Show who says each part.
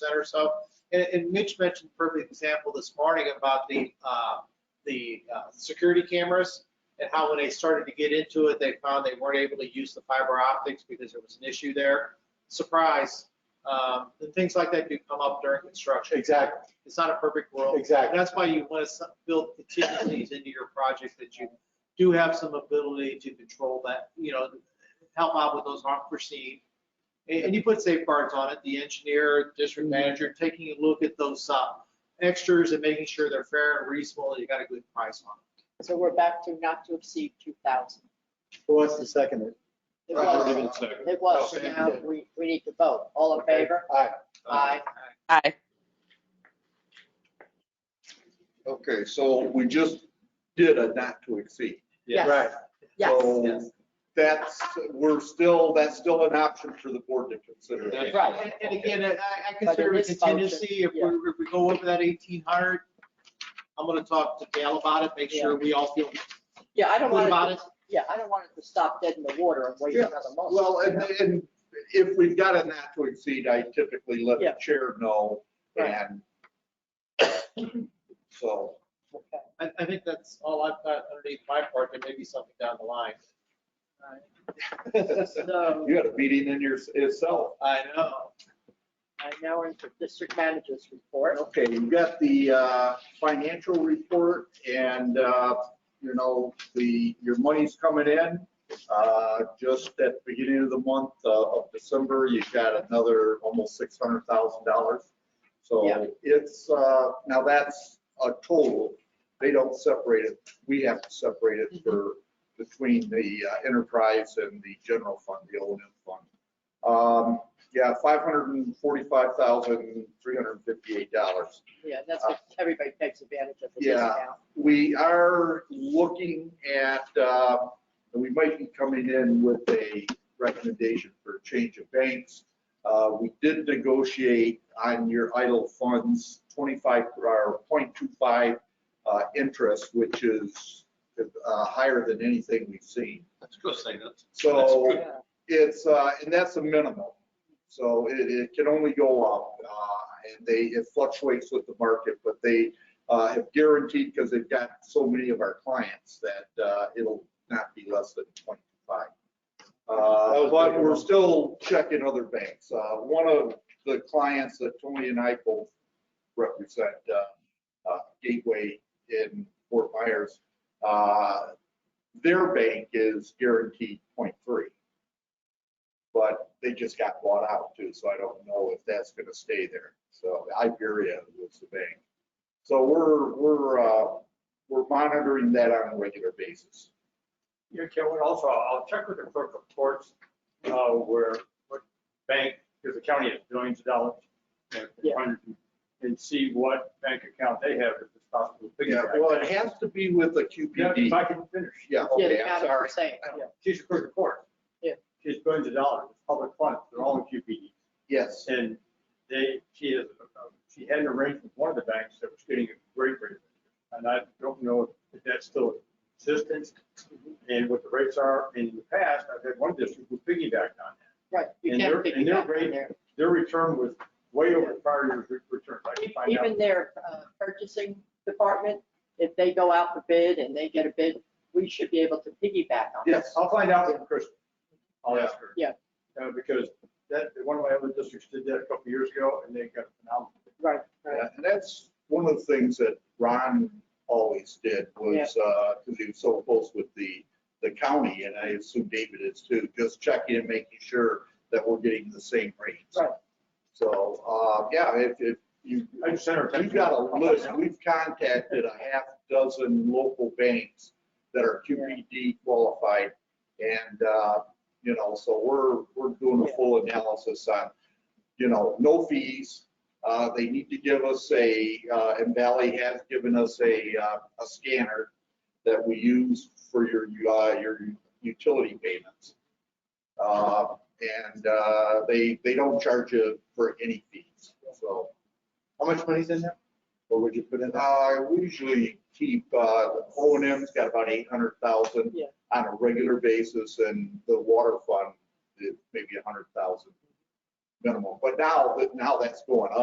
Speaker 1: center. So, and, and Mitch mentioned a perfect example this morning about the, uh, the, uh, security cameras and how when they started to get into it, they found they weren't able to use the fiber optics because there was an issue there. Surprise. Um, and things like that do come up during construction.
Speaker 2: Exactly,
Speaker 1: It's not a perfect world. And
Speaker 2: exactly.
Speaker 1: that's why you want to build contingencies into your project that you do have some ability to control that, you know, help out with those unforeseen. And, and you put safeguards on it, the engineer, district manager, taking a look at those, uh, extras and making sure they're fair and reasonable, and you got a good price on it.
Speaker 3: So we're back to not to exceed two thousand.
Speaker 2: Who wants to second it?
Speaker 3: It
Speaker 2: Right,
Speaker 3: was,
Speaker 2: right,
Speaker 3: it was, so now we, we need to vote. All in favor?
Speaker 2: Aye.
Speaker 3: Aye.
Speaker 4: Aye.
Speaker 5: Okay, so we just did a not to exceed.
Speaker 1: Yes.
Speaker 2: Right.
Speaker 3: Yes,
Speaker 5: So that's, we're still, that's still an option for the board to consider.
Speaker 6: That's
Speaker 3: right.
Speaker 1: And, and again, I, I
Speaker 3: But
Speaker 1: consider
Speaker 3: it
Speaker 1: it
Speaker 3: is function,
Speaker 1: contingency, if we, if we go over that eighteen hundred, I'm gonna talk to Dale about it, make sure we all feel
Speaker 3: Yeah, I don't
Speaker 1: good
Speaker 3: want
Speaker 1: about it.
Speaker 3: it, yeah, I don't want it to stop dead in the water and wait
Speaker 5: Yeah.
Speaker 3: another month.
Speaker 5: Well, and, and if we've got a not to exceed, I typically let
Speaker 3: Yeah.
Speaker 5: the chair know and so.
Speaker 3: Okay.
Speaker 1: I, I think that's all I've got underneath my part. There may be something down the line.
Speaker 3: So,
Speaker 5: You had a meeting in your, itself.
Speaker 1: I know.
Speaker 3: I now in for district manager's report.
Speaker 5: Okay, you've got the uh, financial report and, uh, you know, the, your money's coming in. Uh, Just at the beginning of the month uh, of December, you've got another almost $600,000.
Speaker 3: Yeah.
Speaker 5: So it's, uh, now that's a total. They don't separate it. We have to separate it for,
Speaker 3: Mm-hmm.
Speaker 5: between the uh, enterprise and the general fund, the O and M fund. Um, yeah, five hundred and forty-five thousand, three hundred and fifty-eight dollars.
Speaker 3: Yeah, that's what everybody takes advantage of the
Speaker 5: Yeah.
Speaker 3: discount.
Speaker 5: We are looking at, uh, we might be coming in with a recommendation for a change of banks. Uh, we did negotiate on your idle funds twenty-five, or 0.25 uh, interest, which is, uh, higher than anything we've seen.
Speaker 6: Let's go say that.
Speaker 5: So.
Speaker 6: That's
Speaker 3: Yeah.
Speaker 5: It's, uh, and that's a minimum. So it, it can only go up, uh, and they, it fluctuates with the market, but they, uh, have guaranteed, because they've got so many of our clients, that, uh, it'll not be less than twenty-five.
Speaker 2: That
Speaker 5: Uh,
Speaker 2: was
Speaker 5: but
Speaker 2: pretty
Speaker 5: we're
Speaker 2: low.
Speaker 5: still checking other banks. Uh, one of the clients that Tony and I both represent, uh, uh, Gateway in Fort Myers, uh, their bank is guaranteed 0.3, But they just got bought out too, so I don't know if that's gonna stay there. So Iberia was the bank. So we're, we're, uh, we're monitoring that on a regular basis.
Speaker 7: Yeah, Kevin, also, I'll check with the clerk of courts, uh, where, what bank, because the county has billions of dollars. and
Speaker 3: Yeah.
Speaker 7: hundreds, And see what bank account they have, if it's possible. to
Speaker 5: Yeah,
Speaker 7: piggyback.
Speaker 5: well, it has to be with the
Speaker 7: Yeah, If
Speaker 5: QPD.
Speaker 7: I can finish,
Speaker 5: Yeah,
Speaker 3: Yeah,
Speaker 5: okay,
Speaker 3: the
Speaker 5: I'm
Speaker 3: county
Speaker 5: sorry.
Speaker 3: percent, yeah.
Speaker 7: she's the clerk of court.
Speaker 3: Yeah.
Speaker 7: She's billions of dollars, it's public funds, they're all in E. QPD.
Speaker 5: Yes,
Speaker 7: And they, she is, uh, she had an arrangement with one of the banks that was getting a great rate. And I don't know if that's still in existence and what the rates are. In the past, I've had one district who piggybacked on that.
Speaker 3: Right, you
Speaker 7: And
Speaker 3: can't
Speaker 7: they're-
Speaker 3: pick
Speaker 7: and
Speaker 3: it
Speaker 7: they're
Speaker 3: up
Speaker 7: great.
Speaker 3: in there.
Speaker 7: Their return was way over prior year's re- return. I can find out.
Speaker 3: Even their uh, purchasing department, if they go out for bid and they get a bid, we should be able to piggyback on it.
Speaker 7: Yes, I'll find out from Chris. I'll ask her.
Speaker 3: Yeah.
Speaker 7: Uh, Because that, one of my other districts did that a couple of years ago and they got phenomenal.
Speaker 3: Right, right.
Speaker 5: Yeah, and that's one of the things that Ron always did was, uh, because he was so close with the, the county, and I assume David is too, just checking and making sure that we're getting the same rates.
Speaker 3: Right.
Speaker 5: So, uh, yeah, if, if you,
Speaker 7: I just sent her. a text.
Speaker 5: we've got a list, we've contacted a half dozen local banks that are QPD qualified. And, uh, you know, so we're, we're doing a full analysis on, you know, no fees. Uh, They need to give us a, uh, and Valley has given us a, uh, a scanner that we use for your, uh, your utility payments. Uh, And uh, they, they don't charge you for any fees, so.
Speaker 2: How much money's in there? Or would you put in?
Speaker 5: Uh, we usually keep, uh, O and M's got about eight hundred thousand
Speaker 3: Yeah.
Speaker 5: on a regular basis and the water fund is maybe a hundred thousand minimum. But now, but now that's going up.